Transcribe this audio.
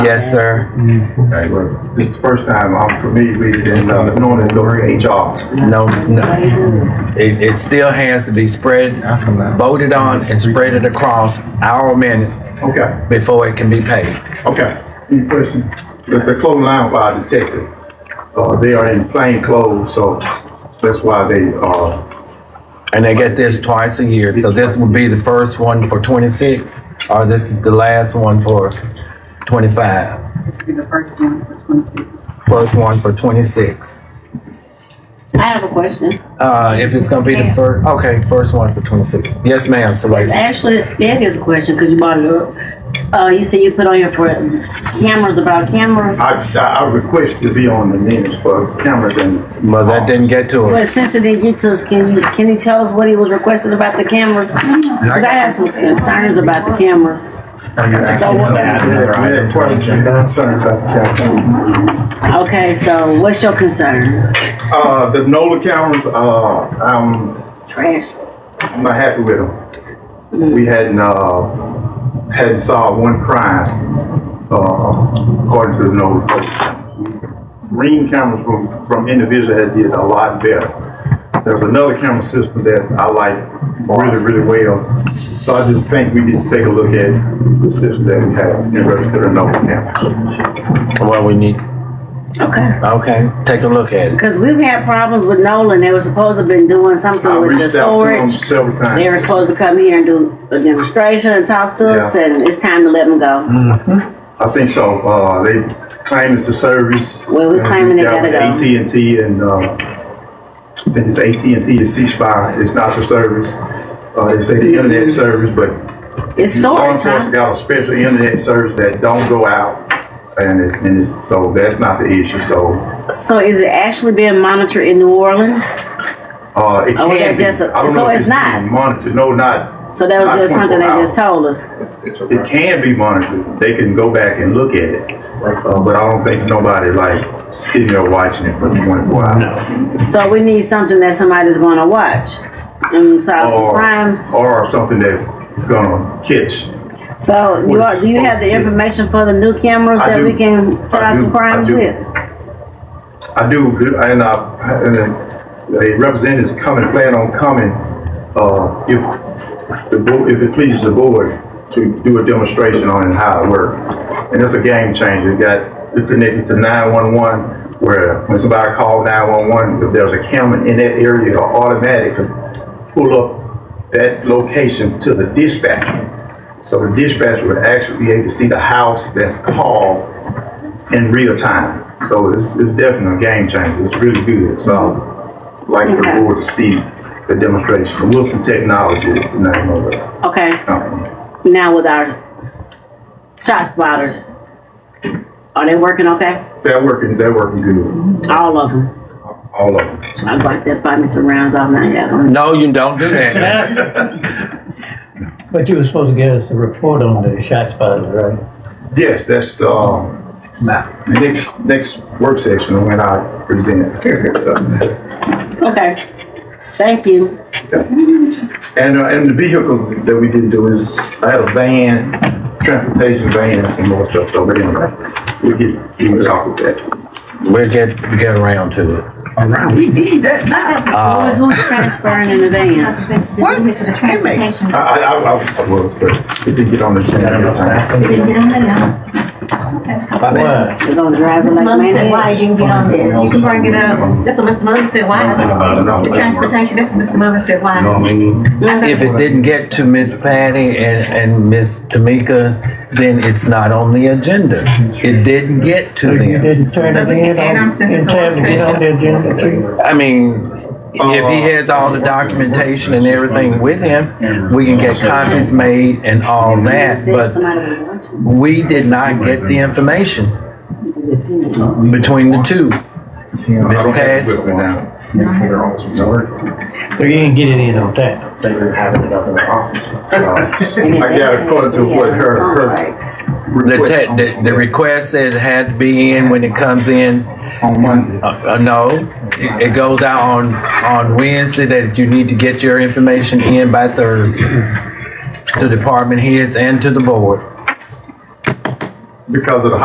Yes, sir. Okay, well, this is the first time um, I'm familiar with it and, uh, knowing it goes to HR. No, no. It, it still has to be spread, voted on and spread it across our minutes Okay, before it can be paid. okay. Any questions? The, the clothing line fire detective, uh, they are in plain clothes, so that's why they, uh, And they get this twice a year. So this would be the first one for twenty-six, or this is the last one for twenty-five. This will be the first one for twenty-six. First one for twenty-six. I have a question. Uh, if it's gonna be the first, okay, first one for twenty-six. Yes, ma'am, so It's actually, that is a question, because you brought it up. Uh, you said you put on here for cameras about cameras. I, I request to be on the minutes for cameras and. Well, that didn't get to But us. since it didn't get to us, can you, can you tell us what he was requesting about the cameras? Because I have some concerns about the cameras. So what about- Yeah, I had a question. Sorry about that. Okay, so what's your concern? Uh, the NOLA cameras, uh, I'm, Trash. I'm not happy with them. We hadn't, uh, hadn't solved one crime, uh, according to the NOLA. code. Ring cameras from, from individuals that did a lot better. There's another camera system that I like really, really well. So I just think we need to take a look at the system that we have in regards to the NOLA cameras. Well, we need, Okay. okay, take a look at it. Because we've had problems with Nolan. They were supposed to have been doing I something with the reached out to them storage. several times. They were supposed to come here and do a demonstration and talk to us, Yeah. Mm-hmm. and it's time to let them go. I think so. Uh, they claim it's a service. Well, we're claiming they gotta go. AT&T and, uh, I think it's AT&T and ceasefire. It's not the service. Uh, they say the internet service, but It's law storage, enforcement huh? got a special internet service that don't go out. And it, and it's, so that's not the issue. So, So is it actually being monitored in New Orleans? uh, it Oh, well, can be. that's a- I don't so know if it's not. being Monitored. No, not. So that was not just something they 24 just hours. told us. It can be monitored. They can go back and look at it. Uh, but I don't think nobody like sitting there watching it for twenty-four hours. So we need something that somebody's gonna watch and solve some Or- crimes. Or something that's gonna catch. So you are, do you have the information for the new cameras I that do. we can I solve do. some I crimes do. with? I do, and I, and a representative's coming, plan on coming, uh, if the board, if it pleases the board to do a demonstration on it, how it works. And it's a game changer. It got, it connected to nine-one-one where when somebody called nine-one-one, if there's a camera in that area, it'll automatically pull up that location to the dispatcher. So the dispatcher would actually be able to see the house that's called in real time. So it's, it's definitely a game changer. It's really good. So I'd like for the Okay. board to see the demonstration. Wilson Technology is the name of the Okay. company. now with our shot spotters. Are they working okay? They're working, they're working good, All of them. all of them. So I'm like that find me some rounds all night. I don't- No, you don't do that. But you were supposed to give us a report on the shot spotters, right? Yes, that's, um, next, next work session when I present. Okay. Thank you. And, uh, and the vehicles that we didn't do is, I had a van, transportation van, and some more stuff, so but anyway, we get, we can talk with that. We'll get, get around to it. around. We did that now. Uh, Who- Who's transferring in the van? What? Inmates. I, I, I, I was, but it did get on the agenda. Why? They're gonna drive it like Mom said why, man. you can get on there, you can bring it up, that's what Mr. Mother said why. The You transportation, that's what Mr. Mother said why. know what I mean? I If think- it didn't get to Miss Patty and, and Miss Tamika, then it's not on the agenda. It didn't get to You them. didn't turn it in on, in time to get on the agenda too? I mean, if he has all the documentation and everything with him, we can get copies made and all that, Said but somebody was watching. we did not get the information between the two. I Miss don't have Patty, equipment now. So you didn't get it in on time? I got according to what her, her. the, request te- the, the request said it had to be in when it comes in. On Monday. Uh, uh, no, it it goes out on, on Wednesday that you need to get your information in by Thursday to department heads and to the board. Because of the